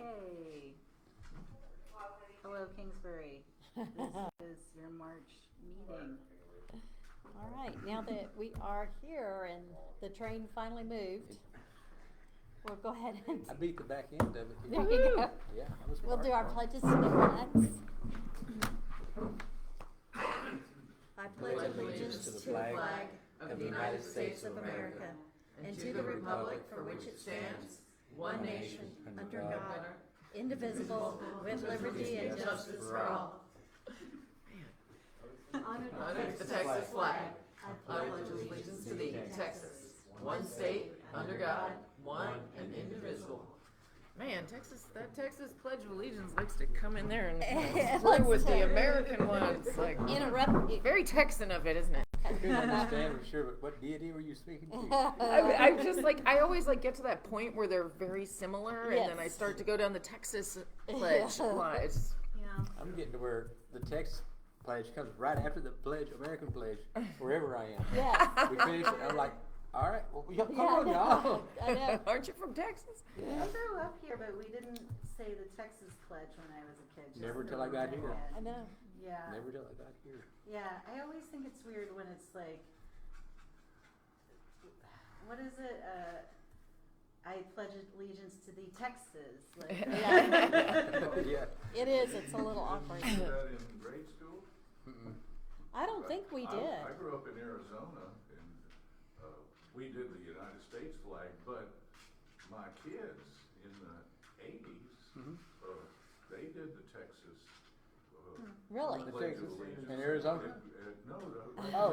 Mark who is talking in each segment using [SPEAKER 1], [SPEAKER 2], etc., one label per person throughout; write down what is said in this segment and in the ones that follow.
[SPEAKER 1] Yay. Hello, Kingsbury.
[SPEAKER 2] Uh-huh.
[SPEAKER 1] This is your March meeting.
[SPEAKER 3] All right, now that we are here and the train finally moved, we'll go ahead and,
[SPEAKER 2] I beat the back end of it.
[SPEAKER 3] there you go.
[SPEAKER 2] Yeah, I was.
[SPEAKER 3] We'll do our
[SPEAKER 2] smart.
[SPEAKER 3] pledges to the flags. I
[SPEAKER 2] pledge allegiance to the flag
[SPEAKER 4] of the United States of America and to the republic for which it stands, one nation, under God,
[SPEAKER 3] indivisible, with liberty and justice for all.
[SPEAKER 4] Under the Texas flag, I pledge allegiance to thee, Texas, one state, under God, one and indivisible.
[SPEAKER 5] Man, Texas, that Texas Pledge of Allegiance likes to come in there
[SPEAKER 3] It
[SPEAKER 5] and play
[SPEAKER 3] likes
[SPEAKER 5] with
[SPEAKER 3] to-
[SPEAKER 5] the American one. It's like
[SPEAKER 3] Interrupt.
[SPEAKER 5] very Texan of it, isn't it?
[SPEAKER 2] I couldn't understand for sure, but what deity were you speaking to?
[SPEAKER 3] Uh,
[SPEAKER 5] I, I'm just like I always like get to that point where they're very similar, and then I
[SPEAKER 3] Yes.
[SPEAKER 5] start to go down the Texas Pledge line. It's just-
[SPEAKER 1] Yeah.
[SPEAKER 2] I'm getting to where the text pledge comes right after the pledge, American pledge, wherever I am.
[SPEAKER 3] Yes.
[SPEAKER 2] We finish it, I'm like, all right, well, y'all come
[SPEAKER 3] Yeah, I
[SPEAKER 2] on
[SPEAKER 3] know.
[SPEAKER 2] now.
[SPEAKER 3] I know.
[SPEAKER 5] Aren't you from Texas?
[SPEAKER 1] I grew up here, but we didn't say the Texas pledge when I was a kid. just
[SPEAKER 2] Never till I got here.
[SPEAKER 3] I know.
[SPEAKER 1] Yeah.
[SPEAKER 2] Never till I got here.
[SPEAKER 1] Yeah, I always think it's weird when it's like, what is it? Uh, I pledge allegiance to the Texas. Like,
[SPEAKER 3] Yeah.
[SPEAKER 2] Yeah.
[SPEAKER 3] It is, it's a little awkward.
[SPEAKER 6] Did you do that in grade school?
[SPEAKER 2] Mm-mm.
[SPEAKER 3] I don't think we
[SPEAKER 6] I-
[SPEAKER 3] did.
[SPEAKER 6] I grew up in Arizona and uh, we did the United States flag, but my kids in the eighties, uh,
[SPEAKER 2] Mhm.
[SPEAKER 6] they did the Texas. uh,
[SPEAKER 3] Really?
[SPEAKER 6] Pledge
[SPEAKER 2] The
[SPEAKER 6] of
[SPEAKER 2] Texas
[SPEAKER 6] Allegiance.
[SPEAKER 2] in Arizona?
[SPEAKER 6] And- and- No, no.
[SPEAKER 2] Oh.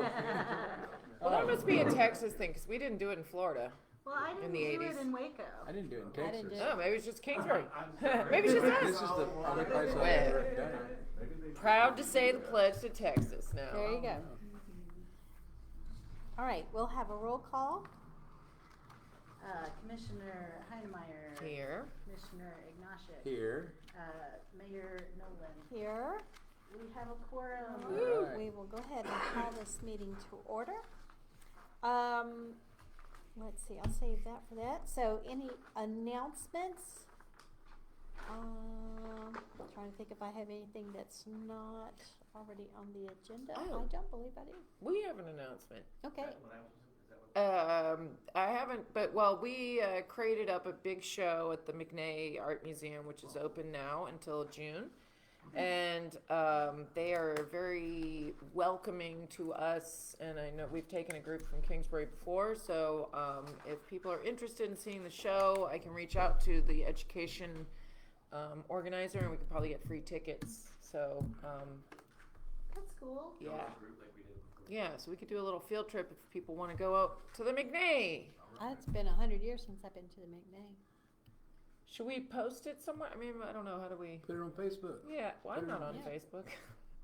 [SPEAKER 5] Well,
[SPEAKER 6] Oh.
[SPEAKER 5] that must be a Texas thing because we didn't do it in Florida.
[SPEAKER 1] well, I
[SPEAKER 5] In
[SPEAKER 1] didn't
[SPEAKER 5] the
[SPEAKER 1] do
[SPEAKER 5] 80s.
[SPEAKER 1] it in Waco.
[SPEAKER 2] I didn't do it in
[SPEAKER 3] I
[SPEAKER 2] Texas.
[SPEAKER 3] didn't do
[SPEAKER 5] Oh, maybe it's just Kingsbury.
[SPEAKER 6] I'm sorry.
[SPEAKER 5] Maybe it's just us.
[SPEAKER 2] This is the only place I've ever done it.
[SPEAKER 6] Maybe they did.
[SPEAKER 5] Proud to say the pledge to Texas now.
[SPEAKER 3] There you go. All right, we'll have a roll call.
[SPEAKER 1] Uh, Commissioner Heinemeier.
[SPEAKER 5] Here.
[SPEAKER 1] Commissioner Ignashek.
[SPEAKER 2] Here.
[SPEAKER 1] Uh, Mayor Nolan.
[SPEAKER 3] Here,
[SPEAKER 1] We have a quorum.
[SPEAKER 2] Woo.
[SPEAKER 3] we will go ahead and call this meeting to order. Um, let's see, I'll save that for that. So any announcements? Um, trying to think if I have anything that's not already on the agenda.
[SPEAKER 5] Oh.
[SPEAKER 3] I don't believe I do.
[SPEAKER 5] We have an announcement.
[SPEAKER 3] Okay,
[SPEAKER 5] Um, I haven't, but well, we uh, created up a big show at the McNay Art Museum, which is open now until June. And um, they are very welcoming to us. And I know we've taken a group from Kingsbury before. So um, if people are interested in seeing the show, I can reach out to the education um, organizer and we could probably get free tickets. So um,
[SPEAKER 1] That's cool.
[SPEAKER 5] yeah. Yeah, so we could do a little field trip if people want to go out to the McNay.
[SPEAKER 3] it's been a hundred years since I've been to the McNay.
[SPEAKER 5] Should we post it somewhere? I mean, I don't know. How do we?
[SPEAKER 2] Put it on Facebook.
[SPEAKER 5] Yeah, well, I'm not on
[SPEAKER 3] Yeah.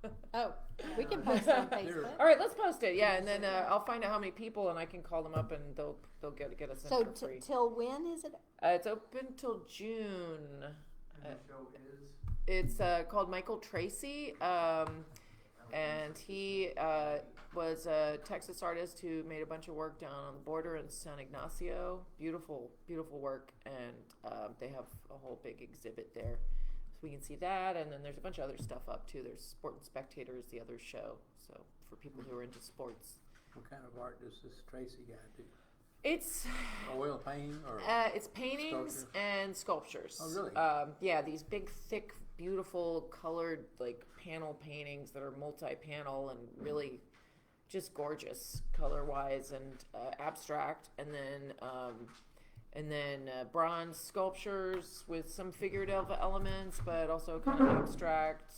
[SPEAKER 5] Facebook.
[SPEAKER 3] Oh, we can post it on Facebook.
[SPEAKER 5] All right, let's post it. Yeah, and then uh, I'll find out how many people, and I can call them up, and they'll they'll get get us in
[SPEAKER 3] So
[SPEAKER 5] for
[SPEAKER 3] t-
[SPEAKER 5] free.
[SPEAKER 3] till when is it?
[SPEAKER 5] uh, it's open till June. And the show is. It's uh, called Michael Tracy, um, and he uh, was a Texas artist who made a bunch of work down on the border in San Ignacio. Beautiful, beautiful work, and um, they have a whole big exhibit there. So we can see that, and then there's a bunch of other stuff up too. There's Sport and Spectators, the other show, so for people who are into sports.
[SPEAKER 2] What kind of art does this Tracy guy do?
[SPEAKER 5] It's
[SPEAKER 2] Oil painting or?
[SPEAKER 5] Uh, it's paintings
[SPEAKER 2] Sculptures?
[SPEAKER 5] and sculptures.
[SPEAKER 2] Oh, really?
[SPEAKER 5] Um, yeah, these big, thick, beautiful, colored like panel paintings that are multi-panel and really just gorgeous color-wise and uh, abstract. And then, um, and then uh, bronze sculptures with some figurative elements, but also kind of abstract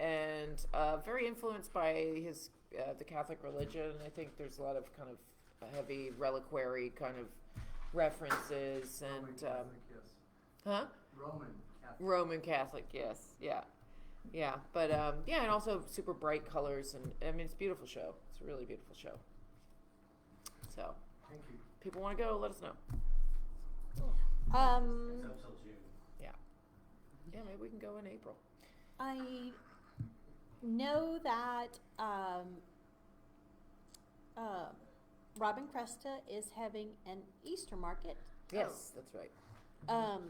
[SPEAKER 5] and uh, very influenced by his uh, the Catholic religion. I think there's a lot of kind of heavy reliquary kind of references and um, huh Roman Catholic, yes, yeah, yeah. But um, yeah, and also super bright colors, and I mean it's a beautiful show. It's a really beautiful show. So, thank you. People want to go? Let us know.
[SPEAKER 3] Um,
[SPEAKER 5] Yeah, maybe we can go in April.
[SPEAKER 3] I know that um, uh, Robin Cresta is having an Easter market.
[SPEAKER 5] Yes, Oh, that's right.
[SPEAKER 3] Um,